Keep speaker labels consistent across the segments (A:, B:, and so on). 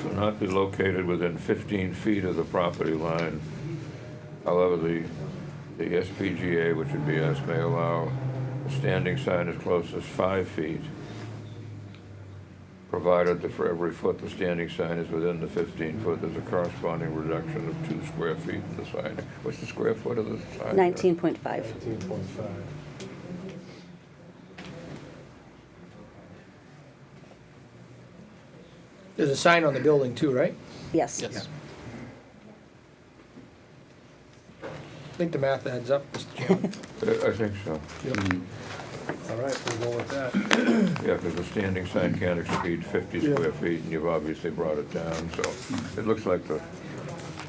A: Shall not be located within 15 feet of the property line. However, the, the SPGA, which would be us, may allow a standing sign as close as five feet, provided that for every foot the standing sign is within the 15 foot, there's a corresponding reduction of two square feet in the sign. What's the square foot of the sign?
B: 19.5.
C: Nineteen point five.
D: There's a sign on the building too, right?
B: Yes.
E: Yes.
D: I think the math adds up, Mr. Chairman.
A: Uh, I think so.
C: All right, we'll go with that.
A: Yeah, because the standing sign can't exceed 50
C: Yeah.
A: square feet, and you've obviously brought it down, so it looks like the,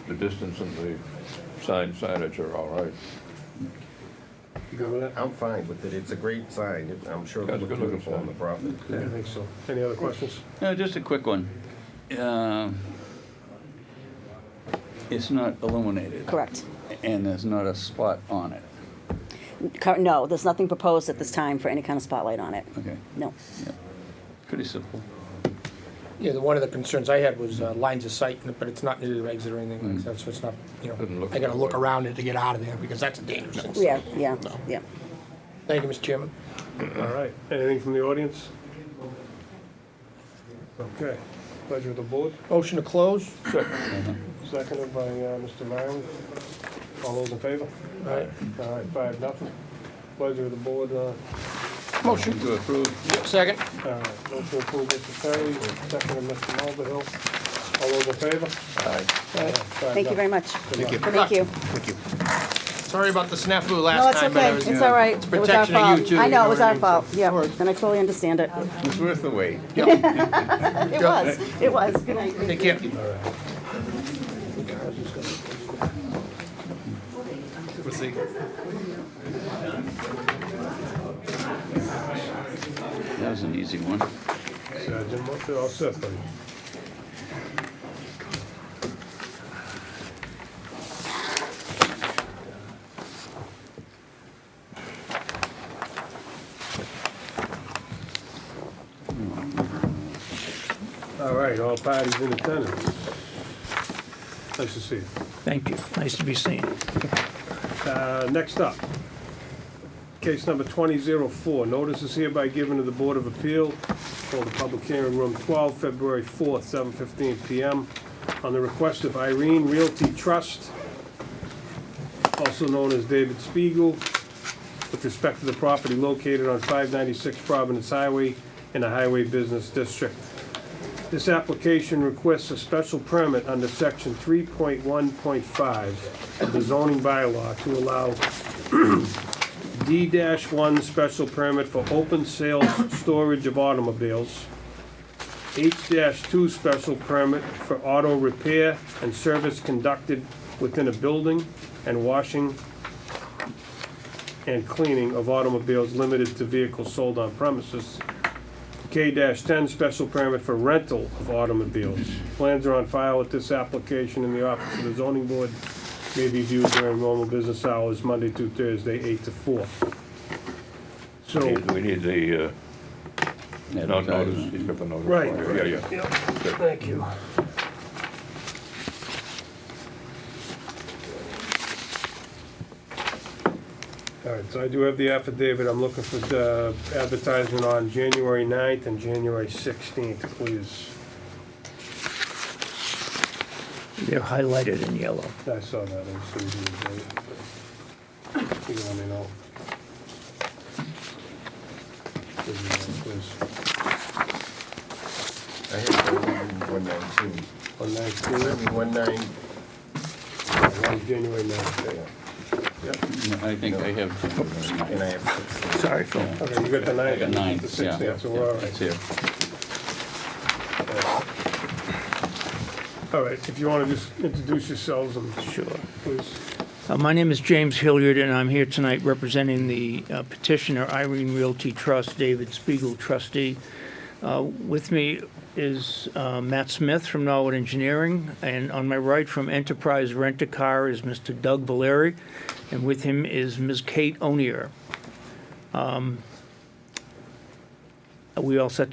A: the distance and the sign signage are all right.
C: You good with that?
F: I'm fine with it. It's a great sign. It- I'm sure
A: That's
F: it'll
A: a
F: look
A: good-looking
F: beautiful on the
A: sign.
F: property.
C: I think so. Any other questions?
E: No, just a quick one. Um, It's not illuminated.
B: Correct.
E: And there's not a spot on it.
B: Cur- No, there's nothing proposed at this time for any kind of spotlight on it.
E: Okay,
B: No.
E: yeah. Pretty simple.
D: Yeah, the, one of the concerns I had was uh, lines of sight, but it's not near the exit or anything like that, so it's not, you
A: Doesn't
D: know,
A: Mm. look
D: I gotta
A: that
D: look
A: way.
D: around it to get out of there because that's a dangerous thing.
B: Yeah, yeah, yeah.
D: Thank you, Mr. Chairman.
C: All right, anything from the audience? Okay, pleasure of the board,
D: Motion to close?
C: seconded by uh, Mr. Myron. All those in favor?
D: Aye.
C: All right, five, nothing. Pleasure of the board, uh,
D: Motion.
A: To approve,
D: Second?
C: all right, motion approved, Mr. Perry, seconded Mr. Mulvihill. All those in favor?
B: Thank you very much. Thank you. Thank you.
D: Sorry about the snafu
B: No,
D: last
B: it's
D: time, but
B: okay.
D: I was.
B: It's all right. It was our
D: protection of you
B: fault.
D: too,
B: I
D: you
B: know,
D: know
B: it was
D: what I
B: our
D: mean?
B: fault.
D: Of
B: Yeah,
D: course.
B: and I totally understand it.
F: It's worth the wait.
B: It was, it was. Good night.
D: Take care.
E: That was an easy one.
C: Sergeant Murphy, all set, buddy. All right, all parties in attendance. Nice to see you.
G: Thank you. Nice to be seen.
C: Uh, Next up, case number 2004, notice is hereby given to the Board of Appeal for the public hearing, room 12, February 4th, 7:15 PM, on the request of Irene Realty Trust, also known as David Spiegel, with respect to the property located on 596 Providence Highway in the Highway Business District. This application requests a special permit under section three point one point five of the zoning bylaw to allow D one special permit for open sales storage of automobiles, H two special permit for auto repair and service conducted within a building, and washing and cleaning of automobiles limited to vehicles sold on premises, K-10, special permit for rental of automobiles. Plans are on file with this application in the office of the zoning board. May be viewed during normal business hours, Monday through Thursday, 8 to 4. So,
A: We need the, uh, not notice,
E: Advertisement.
A: he's got the notice.
C: Right.
A: Yeah, yeah.
C: thank you. All right, so I do have the affidavit. I'm looking for the advertisement on January 9th and January 16th, please.
G: They're highlighted in yellow.
C: I saw that, I was thinking of that. You let me know. Give me that, please.
F: I have one nineteen.
C: On
F: I
C: nineteen,
F: mean, one nine,
C: uh, on January ninth.
E: I think I have,
F: and I have sixteen.
G: Sorry, Phil.
C: Okay, you got the ninth.
E: I got nine,
C: The
E: yeah.
C: sixteenth, so we're all
E: it's
C: right.
E: here.
C: All right, if you wanna just introduce yourselves and,
G: Sure.
C: please.
G: Uh, My name is James Hilliard, and I'm here tonight representing the uh, petitioner Irene Realty Trust, David Spiegel trustee. Uh, With me is uh, Matt Smith from Norwood Engineering, and on my right from Enterprise Rent-A-Car is Mr. Doug Valeri, and with him is Ms. Kate Onier. Um, Are we all set